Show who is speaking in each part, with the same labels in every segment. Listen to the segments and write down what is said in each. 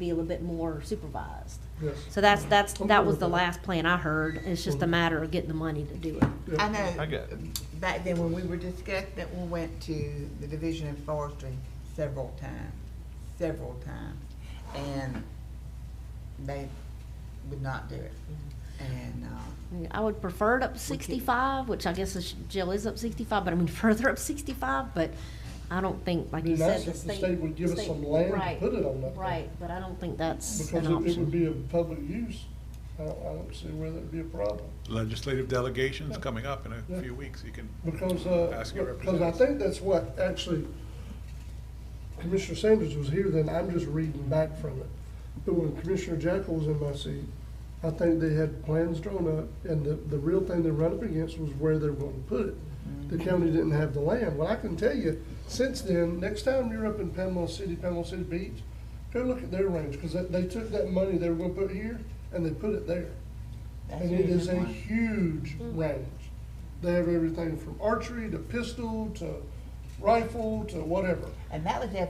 Speaker 1: be a little bit more supervised.
Speaker 2: Yes.
Speaker 1: So that's, that's,
Speaker 2: I'm
Speaker 1: that
Speaker 2: good
Speaker 1: was
Speaker 2: with
Speaker 1: the
Speaker 2: that.
Speaker 1: last plan I heard, it's just a matter of getting the money to do it.
Speaker 2: Yep.
Speaker 3: I
Speaker 4: I
Speaker 3: know,
Speaker 4: got it.
Speaker 3: back then when we were discussing it, we went to the Division of Forestry several times, several times. And they would not do it.
Speaker 2: Mm-hmm.
Speaker 3: And, uh,
Speaker 1: I would prefer it up to sixty-five, which I guess is- Jill is up sixty-five, but I mean further up sixty-five, but I don't think, like
Speaker 2: I mean,
Speaker 1: you said,
Speaker 2: that's
Speaker 1: the
Speaker 2: if
Speaker 1: state.
Speaker 2: the state would give us
Speaker 1: state-
Speaker 2: some land to
Speaker 1: right,
Speaker 2: put it on that. thing.
Speaker 1: Right, but I don't think that's
Speaker 2: Because
Speaker 1: an
Speaker 2: it- it would
Speaker 1: option.
Speaker 2: be of public use. I don't, I don't see where that'd be a problem.
Speaker 4: Legislative delegations coming up in
Speaker 2: Yeah.
Speaker 4: a few weeks, you can.
Speaker 2: Because, uh,
Speaker 4: Ask your
Speaker 2: because I think that's what actually Commissioner Sanders was here then, I'm just reading back from it. But when Commissioner Jackal was in my seat, I think they had plans drawn up and the, the real thing they run up against was where they were gonna put it. The county didn't have the land. Well, I can tell you, since then, next time you're up in Panama City, Panama City Beach, go look at their range, cause that, they took that money they were gonna put here and they put it there.
Speaker 3: that's
Speaker 2: And it is a
Speaker 3: usually one.
Speaker 2: huge range. They have everything from archery to pistol to rifle to whatever.
Speaker 3: And that was F.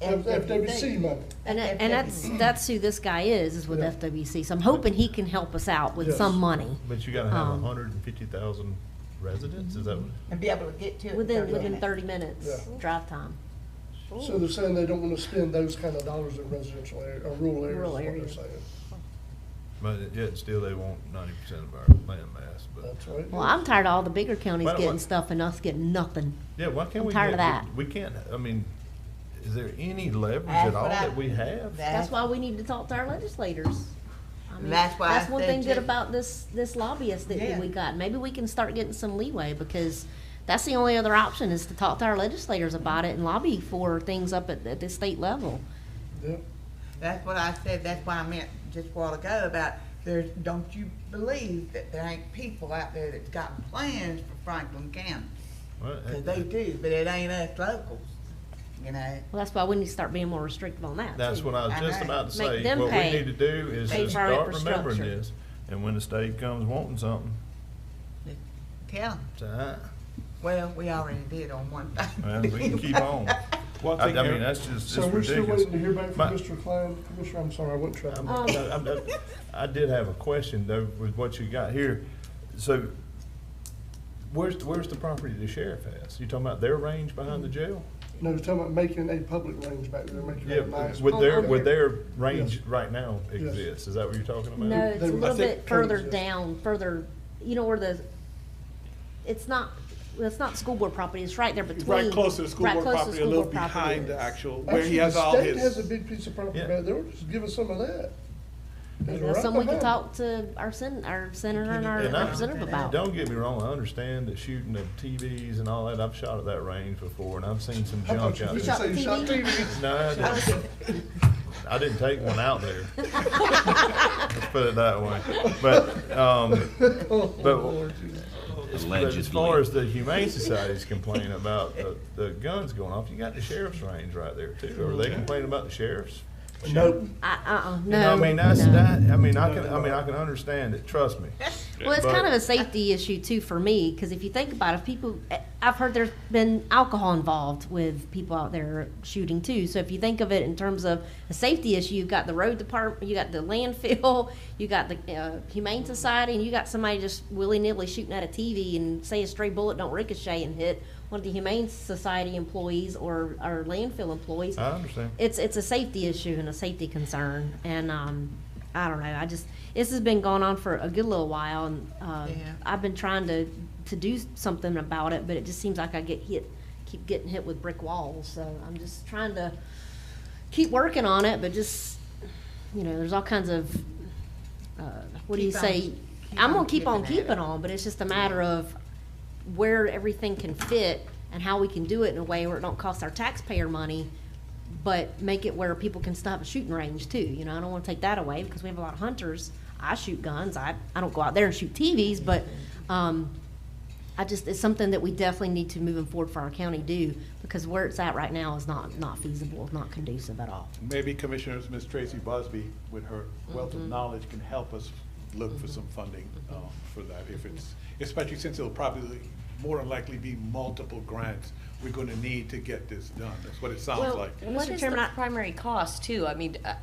Speaker 2: F- FWC
Speaker 3: FWC.
Speaker 2: money.
Speaker 1: And, that- and that's, that's who this guy is, is with
Speaker 2: Yeah.
Speaker 1: FWC, so I'm hoping he can help us out with
Speaker 2: Yes.
Speaker 1: some money.
Speaker 5: But you gotta have
Speaker 1: Um,
Speaker 5: a hundred and fifty thousand residents, is that what?
Speaker 2: Mm-hmm.
Speaker 3: And be able to get to it. in
Speaker 1: Within,
Speaker 3: 30
Speaker 1: within
Speaker 3: minutes.
Speaker 1: thirty minutes,
Speaker 2: Yeah.
Speaker 1: drive time.
Speaker 2: So they're saying they don't wanna spend those kind of dollars in residential area, or rural areas, is
Speaker 1: Rural
Speaker 2: what they're
Speaker 1: areas.
Speaker 2: saying.
Speaker 5: But it- yet still they want ninety percent of our land mass, but,
Speaker 2: That's right.
Speaker 1: Well, I'm tired of all the bigger counties
Speaker 5: Why don't-
Speaker 1: getting stuff and us getting nothing.
Speaker 5: yeah, why can't
Speaker 1: I'm
Speaker 5: we?
Speaker 1: tired of
Speaker 5: get-
Speaker 1: that.
Speaker 5: We can't, I mean, is there any leverage
Speaker 3: That's
Speaker 5: at all
Speaker 3: what I-
Speaker 5: that we have?
Speaker 1: That's why we need to talk to our legislators. I mean,
Speaker 3: That's why I
Speaker 1: That's one
Speaker 3: said
Speaker 1: thing good
Speaker 3: to-
Speaker 1: about this, this lobbyist that that we
Speaker 3: Yeah.
Speaker 1: got. Maybe we can start getting some leeway because that's the only other option is to talk to our legislators about it and lobby for things up at, at the state level.
Speaker 2: Yep.
Speaker 3: That's what I said, that's why I meant just a while ago about there's, don't you believe that there ain't people out there that's got plans for Franklin County?
Speaker 5: Well,
Speaker 3: Cause they do, but it ain't us locals, you know?
Speaker 1: Well, that's why we need to start being more restrictive on that.
Speaker 5: That's
Speaker 1: too.
Speaker 5: what I was
Speaker 3: I
Speaker 5: just
Speaker 3: know.
Speaker 5: about to
Speaker 1: Make
Speaker 5: say,
Speaker 1: them
Speaker 5: what we
Speaker 1: pay.
Speaker 5: need to do is
Speaker 1: Pay
Speaker 5: to
Speaker 1: for our
Speaker 5: start remembering
Speaker 1: infrastructure.
Speaker 5: this, and when the state comes wanting something,
Speaker 3: Tell 'em.
Speaker 5: say, "Ah."
Speaker 3: well, we already did on one thing.
Speaker 5: Well, we can keep on.
Speaker 4: One
Speaker 5: I,
Speaker 4: thing,
Speaker 5: I mean,
Speaker 4: Eric,
Speaker 5: that's just,
Speaker 2: So
Speaker 5: it's
Speaker 2: we're still
Speaker 5: ridiculous.
Speaker 2: waiting to hear back
Speaker 5: My-
Speaker 2: from Mr. Klein. Commissioner, I'm sorry, I wouldn't try.
Speaker 5: I'm-
Speaker 2: to-
Speaker 1: Um,
Speaker 5: I'm- I'm- I did have a question though with what you got here. So where's, where's the property the sheriff has? You talking about their range behind the jail?
Speaker 2: No, they're talking about making a public range back there, making
Speaker 5: Yeah,
Speaker 2: it nice.
Speaker 5: would their,
Speaker 1: Oh,
Speaker 5: would their
Speaker 2: Yes.
Speaker 5: range right now
Speaker 2: Yes.
Speaker 5: exist? Is that what you're talking about?
Speaker 1: No, it's a
Speaker 2: They- I
Speaker 1: little
Speaker 2: think
Speaker 1: bit further
Speaker 2: coexist.
Speaker 1: down, further, you know, where the, it's not, well, it's not school board property, it's right there between.
Speaker 4: right close to the school
Speaker 1: right
Speaker 4: board
Speaker 1: close to
Speaker 4: property, a
Speaker 1: school
Speaker 4: little
Speaker 1: board property
Speaker 4: behind the
Speaker 1: is.
Speaker 4: actual, where
Speaker 2: Actually,
Speaker 4: he has
Speaker 2: the
Speaker 4: all
Speaker 2: state has a
Speaker 4: his.
Speaker 2: big piece of property
Speaker 5: Yeah.
Speaker 2: back there. Just give us some of that. It's
Speaker 1: Maybe
Speaker 2: right
Speaker 1: That's something we can
Speaker 2: behind.
Speaker 1: talk to our sen, our senator and our
Speaker 5: And I-
Speaker 1: representative about.
Speaker 5: Don't get me wrong, I understand that shooting of TVs and all that, I've shot at that range before and I've seen some
Speaker 2: I thought
Speaker 5: junk
Speaker 2: you
Speaker 5: out
Speaker 2: were
Speaker 1: shot
Speaker 5: there.
Speaker 2: gonna say you shot
Speaker 1: TV?
Speaker 2: TV.
Speaker 5: No, I didn't, I didn't take one out there. Let's put it that way. But, um, but But as far as the Humane Society's complaining about the, the guns going off, you got the sheriff's range right there too. Are they complaining about the sheriff's?
Speaker 2: Nope.
Speaker 1: I- Uh-uh,
Speaker 5: You know,
Speaker 1: no,
Speaker 5: I mean, that's,
Speaker 1: no.
Speaker 5: that, I mean, I can, I mean, I can understand it, trust me.
Speaker 1: Well, it's
Speaker 5: but-
Speaker 1: kind of a safety issue too for me, because if you think about it, if people, eh, I've heard there's been alcohol involved with people out there shooting too. So if you think of it in terms of a safety issue, you've got the road department, you got the landfill, you got the uh, humane society, and you got somebody just willy nilly shooting at a TV and say a stray bullet don't ricochet and hit one of the humane society employees or or landfill employees.
Speaker 5: I understand.
Speaker 1: it's it's a safety issue and a safety concern, and um, I don't know. I just this has been going on for a good little while, and uh,
Speaker 3: Yeah.
Speaker 1: I've been trying to to do something about it, but it just seems like I get hit, keep getting hit with brick walls. So I'm just trying to keep working on it, but just you know, there's all kinds of uh, what do you
Speaker 3: Keep on-
Speaker 1: say?
Speaker 3: keep
Speaker 1: I'm
Speaker 3: on
Speaker 1: gonna keep on
Speaker 3: keeping at it.
Speaker 1: keeping on, but it's just a matter of where everything can fit and how we can do it in a way where it don't cost our taxpayer money, but make it where people can still have a shooting range too. You know, I don't want to take that away because we have a lot of hunters. I shoot guns. I, I don't go out there and shoot TVs, but um, I just it's something that we definitely need to moving forward for our county do because where it's at right now is not not feasible, it's not conducive at all.
Speaker 4: Maybe Commissioners, Ms. Tracy Busby, with her wealth
Speaker 6: Mm-hmm.
Speaker 4: of knowledge, can help us look for some funding uh, for that if it's, especially since it'll probably, more than likely be multiple grants we're gonna need to get this done. That's what it sounds
Speaker 6: Well,
Speaker 4: like.
Speaker 1: Mr.
Speaker 6: What is
Speaker 1: Chairman,
Speaker 6: the
Speaker 1: I-
Speaker 6: primary cost too? I mean, uh,